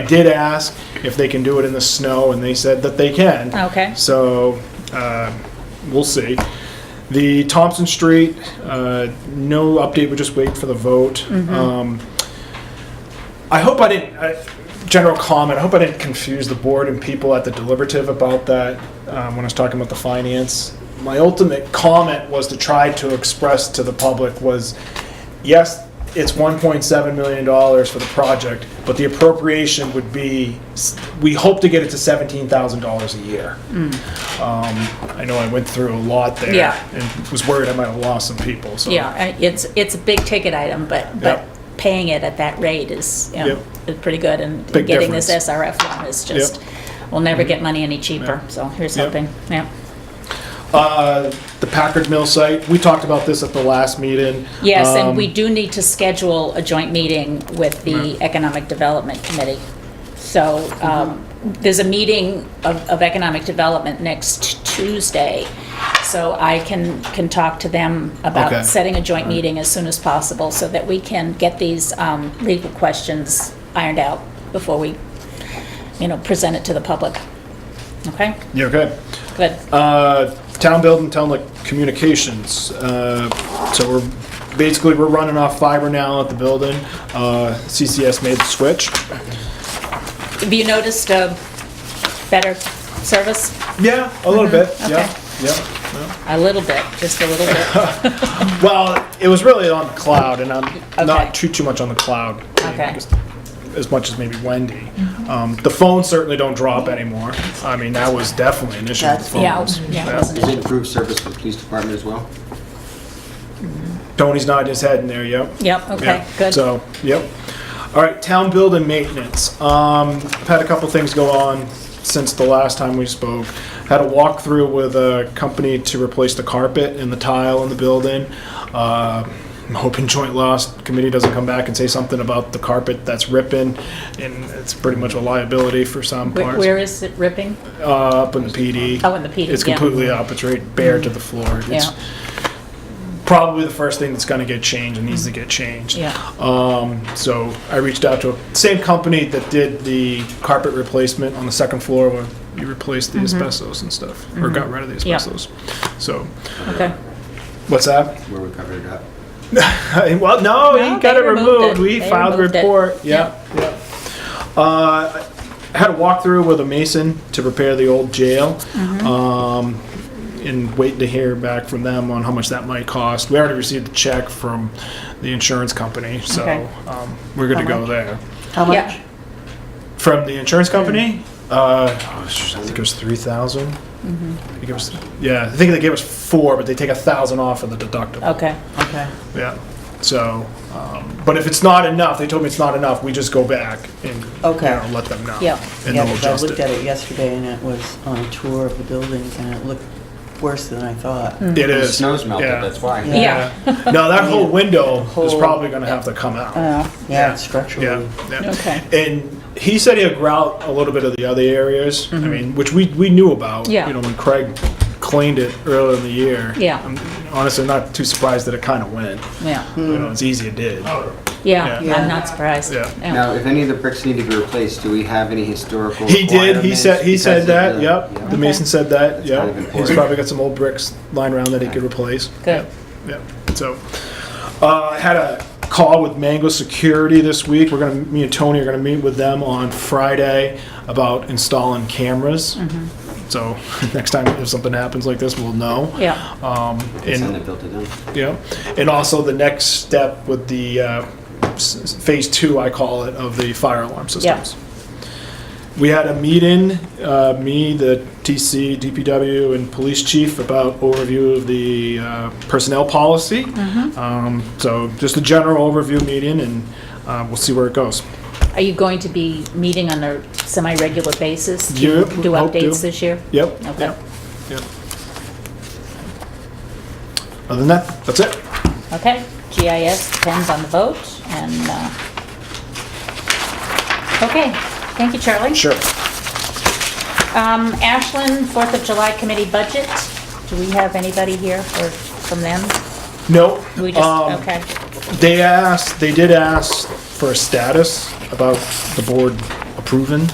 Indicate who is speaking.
Speaker 1: I did ask if they can do it in the snow, and they said that they can.
Speaker 2: Okay.
Speaker 1: So, uh, we'll see. The Thompson Street, uh, no update, we just wait for the vote. Um, I hope I didn't, I- general comment, I hope I didn't confuse the board and people at the deliberative about that um, when I was talking about the finance. My ultimate comment was to try to express to the public was, yes, it's $1.7 million for the project, but the appropriation would be, we hope to get it to $17,000 a year. Um, I know I went through a lot there.
Speaker 2: Hmm. Yeah.
Speaker 1: And was worried I might have lost some people, so.
Speaker 2: Yeah, I- it's, it's a big ticket item, but, but
Speaker 1: Yep.
Speaker 2: paying it at that rate is, you know, is pretty good. And
Speaker 1: Big
Speaker 2: getting this
Speaker 1: difference. Mm-hmm.
Speaker 2: SRF loan is just, we'll never get money any cheaper,
Speaker 1: Yeah.
Speaker 2: so here's
Speaker 1: Yep.
Speaker 2: hoping, yeah.
Speaker 1: Uh, The Packard Mill site, we talked about this at the last meeting.
Speaker 2: Yes, and
Speaker 1: Um,
Speaker 2: we do need to schedule a joint meeting with the Economic Development Committee. So
Speaker 1: Mm-hmm.
Speaker 2: um, there's a meeting of of Economic Development next Tuesday, so I can, can talk to them
Speaker 1: Okay.
Speaker 2: about setting a joint meeting as soon as possible so that we can get these um, legal questions ironed out before we, you know, present it to the public. Okay?
Speaker 1: You okay?
Speaker 2: Good.
Speaker 1: Uh, Town building, town like communications. Uh, So we're, basically, we're running off fiber now at the building. Uh, CCS made the switch.
Speaker 2: Have you noticed a better service?
Speaker 1: Yeah, a little bit,
Speaker 2: Uh-huh. okay.
Speaker 1: yeah, yeah.
Speaker 2: A little bit, just a little bit.
Speaker 1: Well, it was really on the cloud, and I'm
Speaker 2: Okay.
Speaker 1: not too too much on the cloud.
Speaker 2: Okay. Mm-hmm.
Speaker 1: Just As much as maybe Wendy. Um, the phones certainly don't drop anymore. I mean, that was definitely an issue with the
Speaker 2: Yeah,
Speaker 1: phones.
Speaker 2: yeah, it
Speaker 1: Yeah.
Speaker 2: wasn't
Speaker 3: Is
Speaker 2: it?
Speaker 3: it improved service for the police department as well?
Speaker 1: Tony's nodding his head in there, yep.
Speaker 2: Yep, okay,
Speaker 1: Yeah,
Speaker 2: good.
Speaker 1: So, yep. All right, town building maintenance. Um, I've had a couple things go on since the last time we spoke. Had a walkthrough with a company to replace the carpet and the tile in the building. Uh, I'm hoping joint loss committee doesn't come back and say something about the carpet that's ripping, and it's pretty much a liability for some
Speaker 2: Where-
Speaker 1: parts.
Speaker 2: Where is it ripping?
Speaker 1: Uh, Up in the PD.
Speaker 2: Oh, in the PD,
Speaker 1: It's
Speaker 2: yeah. Mm-hmm.
Speaker 1: completely up, it's right bare to the floor. It's
Speaker 2: Yeah.
Speaker 1: Probably the first thing that's gonna get changed and needs to get changed.
Speaker 2: Yeah,
Speaker 1: Um, so I reached out to the same company that did the carpet replacement on the second floor where you replaced the asbestos and stuff, or got rid of the
Speaker 2: Mm-hmm. Yeah.
Speaker 1: asbestos. So,
Speaker 2: okay.
Speaker 1: what's that?
Speaker 3: Where we covered it up?
Speaker 1: well, no,
Speaker 2: No,
Speaker 1: he got
Speaker 2: they
Speaker 1: it
Speaker 2: removed
Speaker 1: removed.
Speaker 2: it.
Speaker 1: We
Speaker 2: They
Speaker 1: filed a
Speaker 2: removed it.
Speaker 1: report. Yeah, yeah. Uh, I had a walkthrough with a mason to repair the old jail.
Speaker 2: Mm-hmm.
Speaker 1: Um, and waiting to hear back from them on how much that might cost. We already received the check from the insurance company, so
Speaker 2: Okay.
Speaker 1: um, we're good to go there.
Speaker 4: How
Speaker 2: Yeah.
Speaker 4: much?
Speaker 1: From the insurance company? Uh, I think it was three thousand. I
Speaker 4: Mm-hmm.
Speaker 1: think it was, yeah, I think they gave us four, but they take a thousand off of the deductible.
Speaker 2: Okay,
Speaker 4: Okay.
Speaker 1: Yeah, so, um, but if it's not enough, they told me it's not enough, we just go back and, you
Speaker 4: Okay.
Speaker 1: know, let them know.
Speaker 2: Yeah.
Speaker 1: And
Speaker 4: Yeah,
Speaker 1: they'll
Speaker 4: because I
Speaker 1: adjust
Speaker 4: looked at
Speaker 1: it.
Speaker 4: it yesterday and it was on a tour of the buildings and it looked worse than I thought.
Speaker 1: It
Speaker 3: The
Speaker 1: is.
Speaker 3: snow's melted,
Speaker 1: yeah.
Speaker 3: that's why.
Speaker 4: Yeah.
Speaker 2: yeah,
Speaker 1: No, that whole window is
Speaker 4: Whole- Uh,
Speaker 1: probably gonna have to come out.
Speaker 4: Yeah,
Speaker 1: Yeah.
Speaker 4: it's structurally.
Speaker 1: Yeah, yeah.
Speaker 2: Okay.
Speaker 1: And he said he'll grout a little bit of the other areas, I mean, which we, we knew about.
Speaker 2: Mm-hmm. Yeah.
Speaker 1: You know, when Craig cleaned it earlier in the year.
Speaker 2: Yeah.
Speaker 1: I'm honestly not too surprised that it kind of went.
Speaker 2: yeah,
Speaker 1: You know, it's easy it did.
Speaker 3: Oh,
Speaker 2: yeah,
Speaker 1: Yeah.
Speaker 2: I'm not surprised.
Speaker 1: Yeah.
Speaker 2: Yeah.
Speaker 3: Now, if any of the bricks need to be replaced, do we have any historical?
Speaker 1: He did, he said, he
Speaker 3: requirements
Speaker 1: said
Speaker 3: because
Speaker 1: that,
Speaker 3: of
Speaker 1: yep.
Speaker 3: the-
Speaker 1: The
Speaker 3: yeah.
Speaker 1: mason said that,
Speaker 3: kind
Speaker 1: yep.
Speaker 3: of
Speaker 1: He's
Speaker 3: important.
Speaker 1: probably got some old bricks lying around that he could replace.
Speaker 2: Good.
Speaker 1: Yep, yep. so. Uh, I had a call with Mango Security this week. We're gonna, me and Tony are gonna meet with them on Friday about installing cameras. So next time if something happens like this, we'll know.
Speaker 2: Yeah,
Speaker 1: Um,
Speaker 3: Send
Speaker 1: and
Speaker 3: it built it in.
Speaker 1: yeah, and also the next step with the uh, s- phase two, I call it, of the fire alarm systems. We had a meeting, uh, me, the TC, DPW, and police chief about overview of the uh, personnel policy.
Speaker 2: Mm-hmm.
Speaker 1: Um, So just a general overview meeting, and uh, we'll see where it goes.
Speaker 2: are you going to be meeting on a semi-regular basis? to
Speaker 1: Yeah,
Speaker 2: Do
Speaker 1: hope to.
Speaker 2: updates this year?
Speaker 1: Yep.
Speaker 2: Okay.
Speaker 1: Yep. Yep. Other than that, that's it.
Speaker 2: Okay, GIS depends on the vote, and, uh, okay, thank you, Charlie.
Speaker 1: Sure.
Speaker 2: Um, Ashland, Fourth of July Committee budget, do we have anybody here for, from them?
Speaker 1: No.
Speaker 2: We just,
Speaker 1: um,
Speaker 2: okay,
Speaker 1: They asked, they did ask for a status about the board proven